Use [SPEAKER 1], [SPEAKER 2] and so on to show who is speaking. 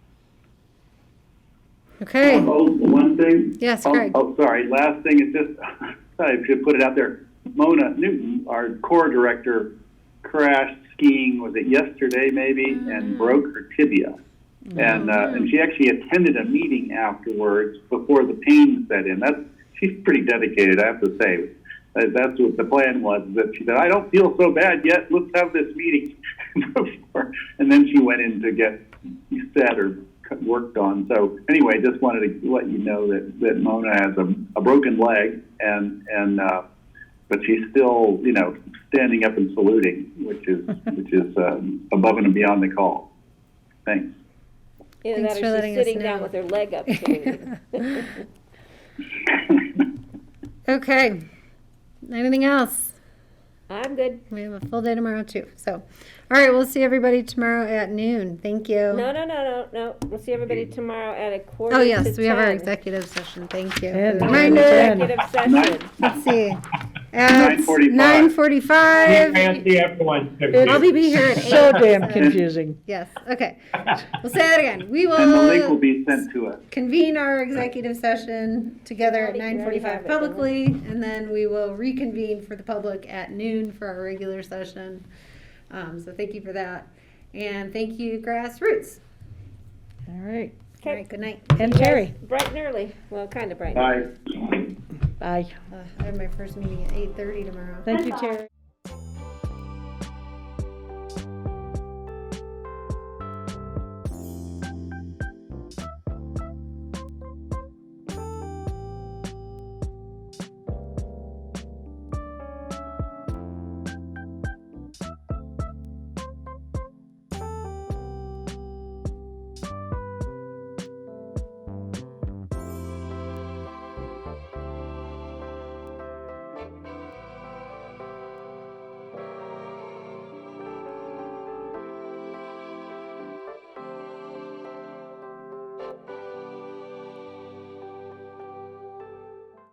[SPEAKER 1] Okay,
[SPEAKER 2] Oh, one thing?
[SPEAKER 1] Yes,
[SPEAKER 2] Oh,
[SPEAKER 1] Greg.
[SPEAKER 2] Oh, sorry, last thing is just, I should put it out there. Mona Newton, our core director, crashed skiing, was it yesterday maybe,
[SPEAKER 1] Mm-hmm.
[SPEAKER 2] and broke her tibia. And, uh, and she actually attended a meeting afterwards before the pain set in. That's, she's pretty dedicated, I have to say. Uh, That's what the plan was, that she said, I don't feel so bad yet, let's have this meeting before. And then she went in to get set or c- worked on. So anyway, just wanted to let you know that, that Mona has a, a broken leg and, and, uh, but she's still, you know, standing up and saluting, which is, which is, um, above and beyond the call. Thanks.
[SPEAKER 3] Either
[SPEAKER 1] Thanks
[SPEAKER 3] that
[SPEAKER 1] for
[SPEAKER 3] or
[SPEAKER 1] letting
[SPEAKER 3] she's
[SPEAKER 1] us
[SPEAKER 3] sitting down
[SPEAKER 1] know.
[SPEAKER 3] with her leg up. too.
[SPEAKER 1] okay. Anything else?
[SPEAKER 3] I'm good.
[SPEAKER 1] We have a full day tomorrow too, so. All right, we'll see everybody tomorrow at noon. Thank you.
[SPEAKER 3] No, no, no, no, no. We'll see everybody tomorrow at a quarter
[SPEAKER 1] Oh,
[SPEAKER 3] to
[SPEAKER 1] yes, we have our
[SPEAKER 3] 10.
[SPEAKER 1] executive session. Thank you.
[SPEAKER 4] And-
[SPEAKER 1] Reminder,
[SPEAKER 3] Executive
[SPEAKER 2] Nine-
[SPEAKER 3] session.
[SPEAKER 1] let's see. At
[SPEAKER 2] 9:45.
[SPEAKER 1] nine forty-five.
[SPEAKER 5] Fancy everyone.
[SPEAKER 1] I'll be here at eight.
[SPEAKER 4] So damn confusing.
[SPEAKER 1] Yes, okay. We'll say that again. We
[SPEAKER 2] And the link will
[SPEAKER 1] will
[SPEAKER 2] be sent to us.
[SPEAKER 1] convene our executive session together at
[SPEAKER 3] We already-
[SPEAKER 1] nine
[SPEAKER 3] we already have
[SPEAKER 1] forty-five
[SPEAKER 3] it, don't we?
[SPEAKER 1] publicly, and then we will reconvene for the public at noon for our regular session. Um, so thank you for that. And thank you, grassroots.
[SPEAKER 4] All right.
[SPEAKER 1] All right, good night.
[SPEAKER 4] And Terry.
[SPEAKER 3] Bright and early. Well, kind of bright. and
[SPEAKER 2] Bye.
[SPEAKER 4] Bye.
[SPEAKER 1] Uh, I have my first meeting at eight thirty tomorrow.
[SPEAKER 4] Thank you, Terry.